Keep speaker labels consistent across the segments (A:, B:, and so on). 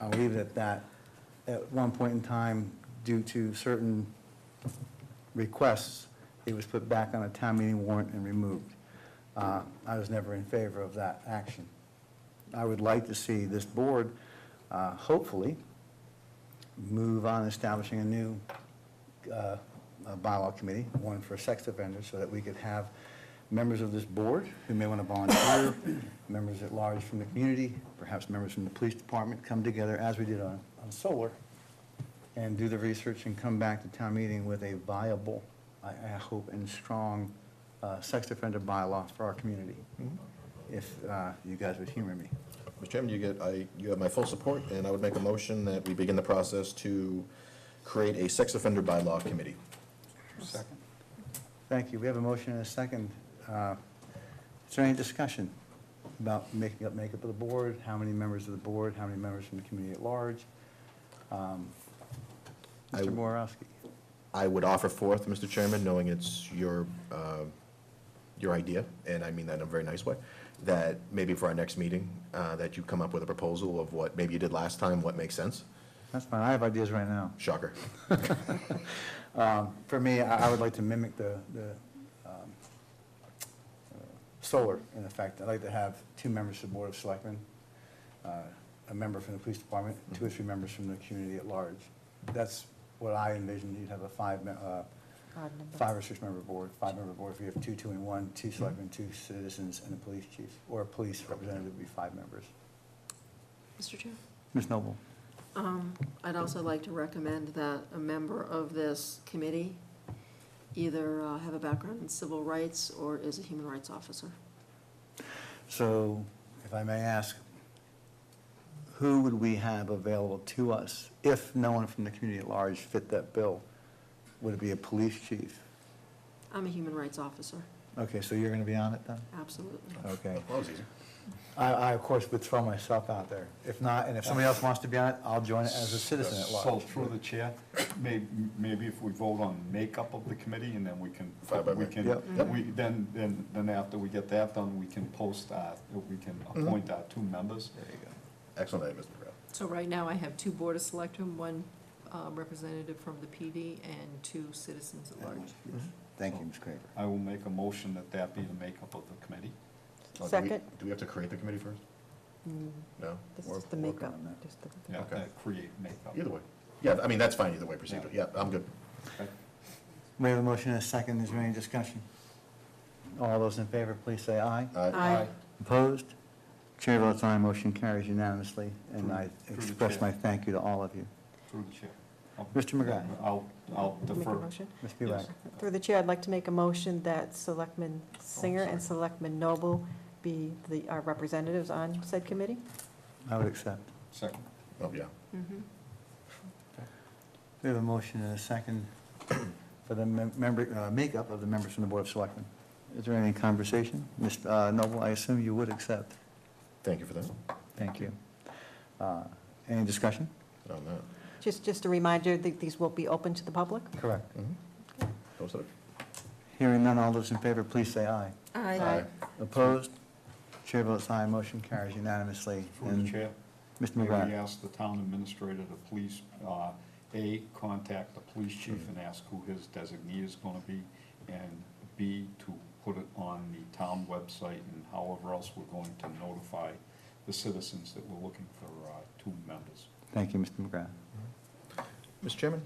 A: I'll leave it at that. At one point in time, due to certain requests, it was put back on a town meeting warrant and removed. Uh, I was never in favor of that action. I would like to see this board, uh, hopefully, move on establishing a new uh, a bylaw committee, one for sex offenders, so that we could have members of this board who may want to volunteer, members at large from the community, perhaps members from the police department, come together as we did on, on solar, and do the research and come back to town meeting with a viable, I, I hope, and strong uh, sex offender bylaw for our community, if uh, you guys would humor me.
B: Mr. Chairman, you get, I, you have my full support, and I would make a motion that we begin the process to create a sex offender bylaw committee.
A: Second. Thank you. We have a motion and a second. Uh, Is there any discussion about making up, makeup of the board? How many members of the board? How many members from the community at large? Um,
B: I-
A: Mr. Borowski?
B: I would offer forth, Mr. Chairman, knowing it's your, uh, your idea, and I mean that in a very nice way, that maybe for our next meeting, uh, that you come up with a proposal of what maybe you did last time, what makes sense.
A: That's fine. I have ideas right now.
B: Shocker.
A: Um, For me, I I would like to mimic the, the um, uh, solar, in effect. I'd like to have two members of the Board of Selectmen, uh, a member from the police department, two or three members from the community at large. That's what I envisioned. You'd have a five, me- uh,
C: Odd number.
A: five or six-member board, five-member board. If you have two, two, and one, two selectmen, two citizens, and a police chief, or a police representative would be five members.
D: Mr. Chair?
A: Ms. Noble?
D: Um, I'd also like to recommend that a member of this committee either uh, have a background in civil rights or is a human rights officer.
A: So, if I may ask, who would we have available to us if no one from the community at large fit that bill? Would it be a police chief?
D: I'm a human rights officer,
A: Okay, so you're going to be on it then?
D: absolutely.
A: Okay.
B: That was easy.
A: I, I, of course, would throw myself out there. If not, and if somebody else wants to be on it, I'll join it as a citizen at large.
E: So through the chair, may, maybe if we vote on makeup of the committee and then we can,
B: Fine by me.
E: we can,
A: Yep.
E: we, then, then, then after we get that done, we can post our, we can
A: Mm-hmm.
E: appoint our two members.
B: There you go. Excellent idea, Mr. Brown. Oh,
F: So right now, I have two Board of Selectmen, one um, representative from the PD, and two citizens at large.
A: Thank you, Ms. Craver.
E: I will make a motion that that be the makeup of the committee.
B: Oh, do we-
C: Second.
B: Do we have to create the committee first? No?
C: This
B: We're
C: is the
B: working
C: makeup,
B: on that.
C: just the-
E: Yeah,
B: Okay.
E: that create makeup.
B: Either way. Yeah, I mean, that's fine either way, procedure. Yeah,
E: Yeah.
B: I'm good.
E: Okay.
A: We have a motion and a second. Is there any discussion? All those in favor, please say aye.
B: Aye.
D: Aye.
A: Opposed? Chair votes aye, motion carries unanimously, and I
E: Through the
A: express
E: chair.
A: my thank you to all of you.
E: Through the chair. I'll-
A: Mr. McGrath.
E: I'll, I'll
C: Make a
E: defer.
C: motion.
A: Ms.
E: Yes.
A: Bueller.
C: Through the chair, I'd like to make a motion that Selectman Singer and Selectman Noble be the, our representatives on said committee.
A: I would accept.
E: Second.
B: Oh, yeah.
C: Mm-hmm.
D: Mhm.
A: We have a motion and a second for the mem- member, uh, makeup of the members from the Board of Selectmen. Is there any conversation? Ms. uh, Noble, I assume you would accept.
B: Thank you for that.
A: Thank you. Uh, Any discussion?
B: On that.
C: Just, just a reminder that these will be open to the public.
A: Correct.
B: Mhm. Close it.
A: Hearing none, all those in favor, please say aye.
D: Aye.
A: Opposed? Chair votes aye, motion carries unanimously.
E: Through
A: And
E: the chair.
A: Mr.
E: May we
A: McGrath.
E: ask the town administrator to please, uh, A, contact the police chief and ask who his designee is gonna be, and B, to put it on the town website and however else we're going to notify the citizens that we're looking for uh, two members.
A: Thank you, Mr. McGrath.
B: Mr. Chairman?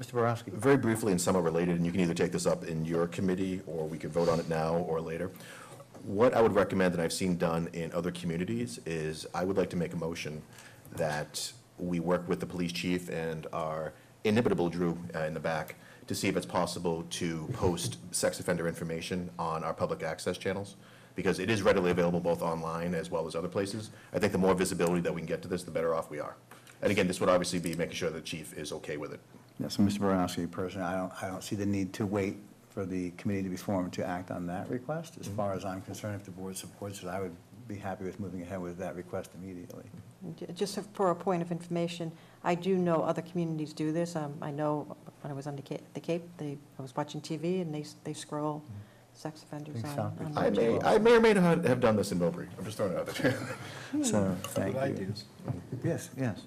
A: Mr. Borowski.
B: Very briefly, and somewhat related, and you can either take this up in your committee, or we could vote on it now or later. What I would recommend, and I've seen done in other communities, is I would like to make a motion that we work with the police chief and our inimitable Drew uh, in the back to see if it's possible to post sex offender information on our public access channels, because it is readily available both online as well as other places. I think the more visibility that we can get to this, the better off we are. And again, this would obviously be making sure the chief is okay with it.
A: Yeah, so Mr. Borowski, personally, I don't, I don't see the need to wait for the committee to be formed to act on that request. As far as I'm concerned, if the board supports it, I would be happy with moving ahead with that request immediately.
C: J- Just for a point of information, I do know other communities do this. Um, I know when I was on the Cape, the Cape, they, I was watching TV and they, s- they scroll sex offenders
A: Think
C: on.
A: Southbridge
C: on
A: I
B: Mm-hmm. I
C: the-
B: may, I may or may not have done this in Millbury. I'm just throwing it out there.
A: So, thank you.
E: Good ideas.
A: Yes, yes.